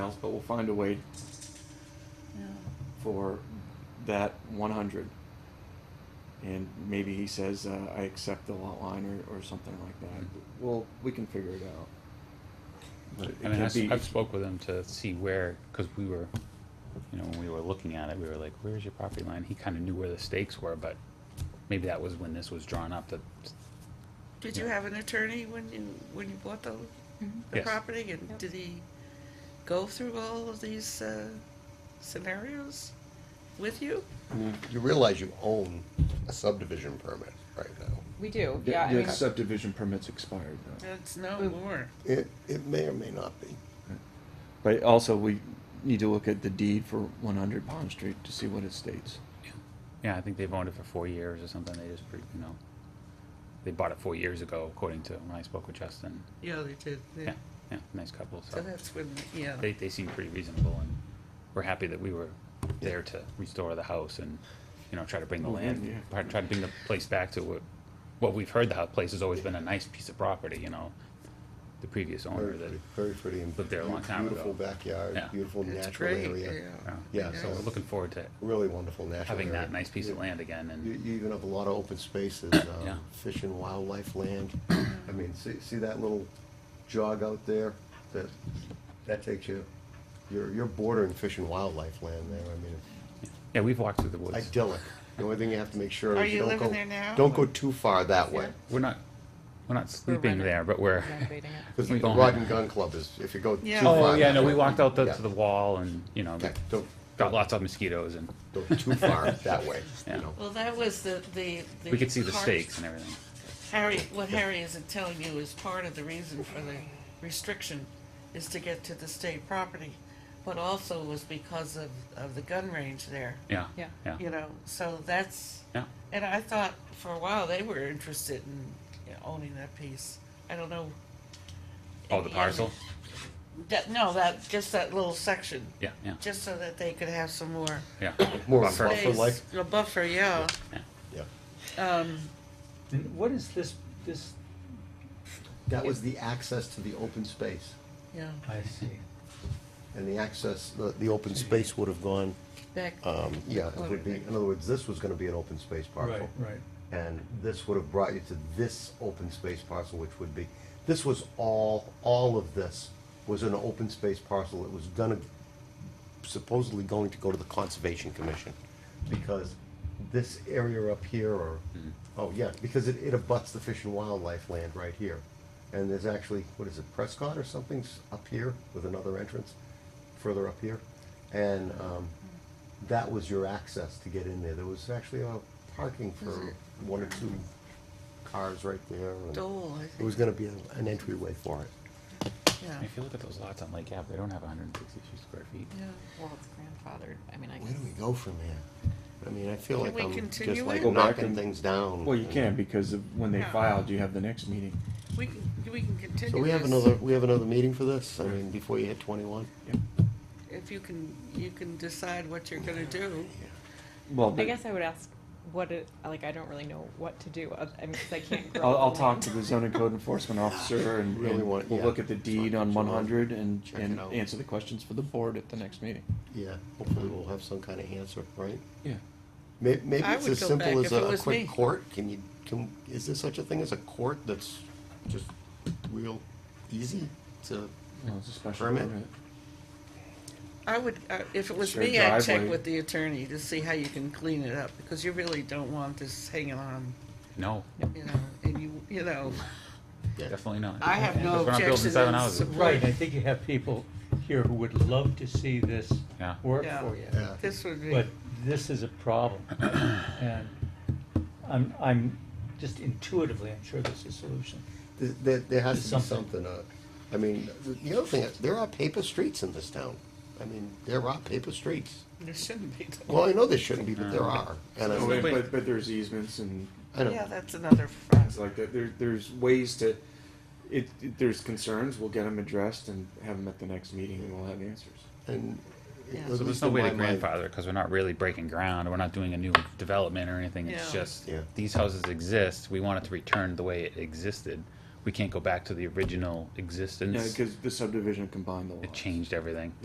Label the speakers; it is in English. Speaker 1: else, but we'll find a way for that 100. And maybe he says, uh, I accept the lot line or, or something like that. Well, we can figure it out. But it
Speaker 2: I mean, I
Speaker 1: can't
Speaker 2: s-
Speaker 1: be,
Speaker 2: I've spoke with him to see where, because we were, you know, when we were looking at it, we were like, where's your property line? He kind of knew where the stakes were, but maybe that was when this was drawn up, that,
Speaker 3: Did you
Speaker 2: Yeah.
Speaker 3: have an attorney when you, when you bought the, the
Speaker 2: Yes.
Speaker 3: property? And did he go through all of these uh, scenarios with you?
Speaker 4: I mean, You realize you own a subdivision permit right now.
Speaker 5: We do,
Speaker 1: the,
Speaker 5: yeah, I
Speaker 1: the
Speaker 5: mean,
Speaker 1: subdivision permit's expired, though.
Speaker 3: It's no more.
Speaker 4: It, it may or may not be.
Speaker 1: But also, we need to look at the deed for 100 Pond Street to see what it states.
Speaker 2: yeah, I think they've owned it for four years or something, they just, pre- you know, they bought it four years ago, according to when I spoke with Justin.
Speaker 3: Yeah, they did. They-
Speaker 2: Yeah, yeah, nice couple,
Speaker 3: So
Speaker 2: so
Speaker 3: that's when, yeah.
Speaker 2: they, they seem pretty reasonable, and we're happy that we were there to restore the house and, you know, try to bring the
Speaker 1: Move in,
Speaker 2: land,
Speaker 1: yeah.
Speaker 2: try try to bring the place back to what, what we've heard the house place has always been a nice piece of property, you know? The previous owner
Speaker 4: Very
Speaker 2: that,
Speaker 4: pretty, very pretty. and
Speaker 2: Lived there a long time ago.
Speaker 4: Beautiful backyard,
Speaker 2: Yeah.
Speaker 4: beautiful
Speaker 3: It's
Speaker 4: natural
Speaker 3: great,
Speaker 4: area.
Speaker 3: yeah.
Speaker 2: uh,
Speaker 4: Yeah,
Speaker 2: so we're
Speaker 4: so
Speaker 2: looking forward to
Speaker 4: really wonderful natural area.
Speaker 2: having that nice piece of
Speaker 4: You-
Speaker 2: land again,
Speaker 4: You,
Speaker 2: and,
Speaker 4: you even have a lot of open spaces,
Speaker 2: Yeah.
Speaker 4: um, fish and wildlife land. I mean, see, see that little jog out there? That, that takes you, you're, you're bordering fish and wildlife land there. I mean,
Speaker 2: yeah, we've walked through the woods.
Speaker 4: idyllic. The only thing you have to make sure
Speaker 3: Are
Speaker 4: is
Speaker 3: you
Speaker 4: you don't
Speaker 3: living
Speaker 4: go,
Speaker 3: there now?
Speaker 4: don't go too far that way.
Speaker 2: We're not, we're not sleeping
Speaker 5: renting-
Speaker 2: there, but we're,
Speaker 5: renovating it.
Speaker 4: Because
Speaker 2: We
Speaker 4: the
Speaker 2: don't
Speaker 4: Rod
Speaker 2: have-
Speaker 4: and Gun Club is, if you go too
Speaker 3: Yeah.
Speaker 4: far.
Speaker 2: oh, yeah,
Speaker 4: that
Speaker 2: no, we
Speaker 4: way-
Speaker 2: walked out the-
Speaker 4: Yeah.
Speaker 2: to the wall and, you know,
Speaker 4: Yeah, Don't,
Speaker 2: got lots of mosquitoes, and
Speaker 4: don't go too far that way, you
Speaker 2: Yeah.
Speaker 4: know.
Speaker 3: Well, that was the, the.
Speaker 2: we could see the
Speaker 3: part-
Speaker 2: stakes and everything.
Speaker 3: Harry, what Harry isn't telling you is part of the reason for the restriction is to get to the state property, but also was because of, of the gun range there,
Speaker 2: Yeah,
Speaker 5: Yeah.
Speaker 2: yeah,
Speaker 3: you know, so that's,
Speaker 2: yeah.
Speaker 3: and I thought for a while they were interested in you know, owning that piece. I don't know.
Speaker 2: Oh, the
Speaker 3: Yeah.
Speaker 2: parcel?
Speaker 3: That, no, that, just that little section,
Speaker 2: Yeah, yeah,
Speaker 3: just so that they could have some more
Speaker 2: yeah.
Speaker 4: More of a
Speaker 2: Buffer.
Speaker 4: buffer like,
Speaker 3: space. A buffer, yeah.
Speaker 4: yeah.
Speaker 3: Um,
Speaker 6: And what is this, this?
Speaker 4: That was the access to the open space.
Speaker 3: yeah,
Speaker 6: I see.
Speaker 4: And the access, the, the open space would have gone,
Speaker 3: back,
Speaker 4: um, yeah, it would be, in other words, this was gonna be an open space
Speaker 6: Right,
Speaker 4: parcel.
Speaker 6: right.
Speaker 4: And this would have brought you to this open space parcel, which would be, this was all, all of this was an open space parcel. It was gonna, supposedly going to go to the Conservation Commission. Because this area up here, or, oh yeah, because it, it abuts the Fish and Wildlife land right here. And there's actually, what is it, Prescott or something's up here with another entrance, further up here. And, um, that was your access to get in there. There was actually a parking for one or two cars right there. and
Speaker 3: Mm-hmm. Dole, I
Speaker 4: It
Speaker 3: think,
Speaker 4: was gonna be an an entryway for it.
Speaker 3: yeah,
Speaker 2: If you look at those lots on Lake Ave, they don't have hundred and sixty-two square feet.
Speaker 3: yeah.
Speaker 5: Well, it's grandfathered, I mean, I
Speaker 4: Where do we
Speaker 5: guess.
Speaker 4: go from there? I mean, I feel
Speaker 3: Can
Speaker 4: like
Speaker 3: we
Speaker 4: I'm
Speaker 3: continue
Speaker 4: just like
Speaker 3: it? Go
Speaker 1: back
Speaker 4: knocking
Speaker 1: and-
Speaker 4: things down.
Speaker 1: Well, you can because of when they
Speaker 3: Yeah.
Speaker 1: filed, you have the next meeting.
Speaker 3: We can, we can continue.
Speaker 4: So we have
Speaker 3: this.
Speaker 4: another, we have another meeting for this? I mean, before you hit twenty-one?
Speaker 3: If you can, you can decide what you're gonna do.
Speaker 1: Well,
Speaker 5: I guess I would ask what it, like, I don't really know what to do, I mean, cause I can't grow.
Speaker 1: I'll, I'll
Speaker 5: the
Speaker 1: talk
Speaker 5: land.
Speaker 1: to the zoning code enforcement officer and
Speaker 4: Really
Speaker 1: and
Speaker 4: want-
Speaker 1: we'll
Speaker 4: yeah.
Speaker 1: look at the deed on
Speaker 4: Talk to
Speaker 1: one
Speaker 4: John.
Speaker 1: hundred and,
Speaker 4: Check it
Speaker 1: and
Speaker 4: out.
Speaker 1: answer the questions for the board at the next meeting.
Speaker 4: Yeah, hopefully we'll have some kind of answer, right?
Speaker 1: Yeah.
Speaker 4: May- Maybe
Speaker 3: I
Speaker 4: it's
Speaker 3: would
Speaker 4: as
Speaker 3: go
Speaker 4: simple
Speaker 3: back if
Speaker 4: as
Speaker 3: it
Speaker 4: a a
Speaker 3: was me.
Speaker 4: quick court, can you, can, is there such a thing as a court that's just real easy to?
Speaker 1: Well, it's a special
Speaker 4: Permit?
Speaker 1: permit.
Speaker 3: I would, uh, if it was
Speaker 1: Sure,
Speaker 3: me, I'd check
Speaker 1: driveway.
Speaker 3: with the attorney to see how you can clean it up, because you really don't want this hanging on,
Speaker 2: No,
Speaker 3: you know, and you, you know,
Speaker 2: definitely not.
Speaker 3: I have no
Speaker 2: Because we're not building
Speaker 3: objection.
Speaker 2: seven
Speaker 3: in
Speaker 2: houses.
Speaker 3: support-
Speaker 6: Right, I think you have people here who would love to see this
Speaker 2: Yeah.
Speaker 6: work
Speaker 3: Yeah.
Speaker 6: for you.
Speaker 4: Yeah.
Speaker 3: This would be,
Speaker 6: But this is a problem. And I'm, I'm, just intuitively, I'm sure there's a solution.
Speaker 4: Th- There, there has to be
Speaker 6: There's
Speaker 4: something,
Speaker 6: something.
Speaker 4: uh, I mean, th- the other thing, there are paper streets in this town. I mean, there are paper streets.
Speaker 3: there shouldn't be. though.
Speaker 4: Well, I know there shouldn't be, but there are, and I
Speaker 1: Oh,
Speaker 4: mean,
Speaker 1: wait, But, but there's easements and
Speaker 4: I don't,
Speaker 3: Yeah, that's another front.
Speaker 1: things like that. There, there's ways to, it, it- there's concerns, we'll get them addressed and have them at the next meeting and we'll have answers.
Speaker 4: and.
Speaker 3: Yeah.
Speaker 4: at
Speaker 2: So there's
Speaker 4: least
Speaker 2: no
Speaker 4: in
Speaker 2: way
Speaker 4: my
Speaker 2: to
Speaker 4: mind-
Speaker 2: grandfather, because we're not really breaking ground, we're not doing a new development or anything, it's
Speaker 3: Yeah.
Speaker 2: just,
Speaker 4: Yeah.
Speaker 2: these houses exist, we want it to return the way it existed. We can't go back to the original
Speaker 1: Yeah,
Speaker 2: existence,
Speaker 1: because the subdivision combined the lots.
Speaker 2: it changed everything.